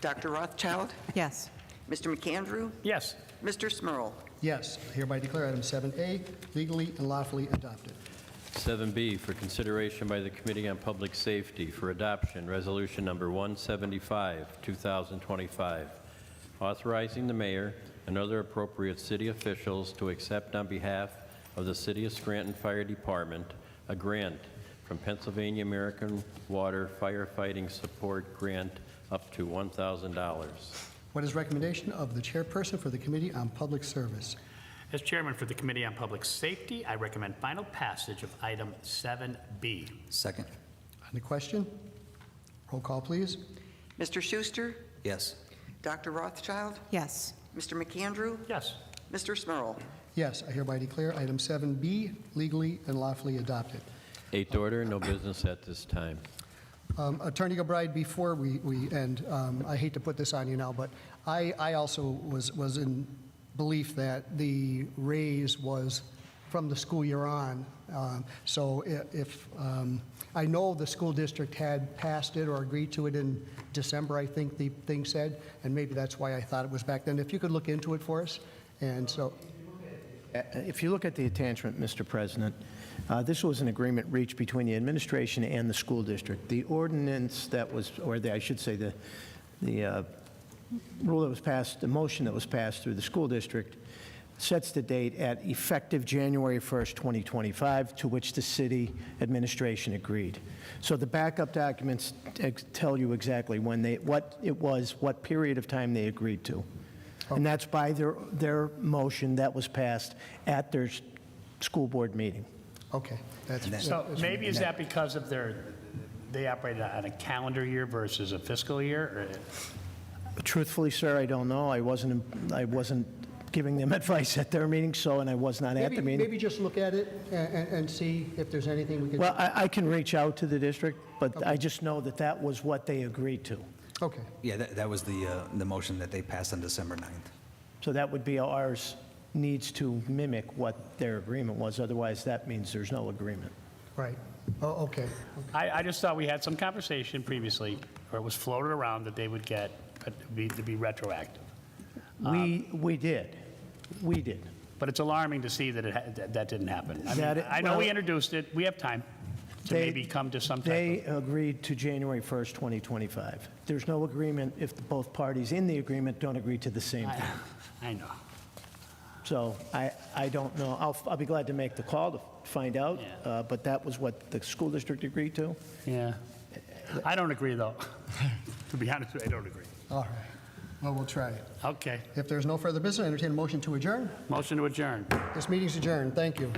Dr. Rothschild, Yes. Mr. McAndrew, Yes. Mr. Smurl. Yes, hereby declare item 7A legally and lawfully adopted. 7B for consideration by the Committee on Public Safety for adoption, Resolution Number 175, 2025, authorizing the mayor and other appropriate city officials to accept on behalf of the City of Scranton Fire Department a grant from Pennsylvania American Water Firefighting Support Grant up to $1,000. What is recommendation of the chairperson for the Committee on Public Service? As chairman for the Committee on Public Safety, I recommend final passage of item 7B. Second. On the question? Roll call, please. Mr. Schuster, Yes. Dr. Rothschild, Yes. Mr. McAndrew, Yes. Mr. Smurl. Yes, I hereby declare item 7B legally and lawfully adopted. Eighth order, no business at this time. Um, Attorney Gilbride, before we we end, um, I hate to put this on you now, but I I also was was in belief that the raise was from the school year on. Um, So i- if, um, I know the school district had passed it or agreed to it in December, I think the thing said, and maybe that's why I thought it was back then. If you could look into it for us, and so, Uh, If you look at the attachment, Mr. President, uh, this was an agreement reached between the administration and the school district. The ordinance that was, or the, I should say, the, the uh, rule that was passed, the motion that was passed through the school district sets the date at effective January 1st, 2025, to which the city administration agreed. So the backup documents ex- tell you exactly when they, what it was, what period of time they agreed to. And that's by their, their motion that was passed at their s- school board meeting. okay, that's... So maybe is that because of their, they operated on a calendar year versus a fiscal year? Truthfully, sir, I don't know. I wasn't, I wasn't giving them advice at their meeting, so, and I was not at Maybe the meeting. maybe just look at it a- a- and see if there's anything we can... Well, I, I can reach out to the district, but I just know that that was what they agreed to. Okay. Yeah, that, that was the, uh, the motion that they passed on December 9th. So that would be ours needs to mimic what their agreement was, otherwise that means there's no agreement. Right. Oh, okay. I, I just thought we had some conversation previously, or it was floated around that they would get, but it'd be- to be retroactive. Uh, We, we did, we did. But it's alarming to see that it, ha- that that didn't happen. I mean, That it- I know we well- introduced it, we have time to They- maybe come to some type of. They agreed to January 1st, 2025. There's no agreement if both parties in the agreement don't agree to the same thing. I know. So I, I don't know. I'll, I'll be glad to make the call to find out, Yeah. uh, but that was what the school district agreed to. Yeah. I don't agree, though. To be honest with you, I don't agree. All right. Well, we'll try it. Okay. If there's no further business, I entertain a motion to adjourn. Motion to adjourn. This meeting's adjourned. Thank you.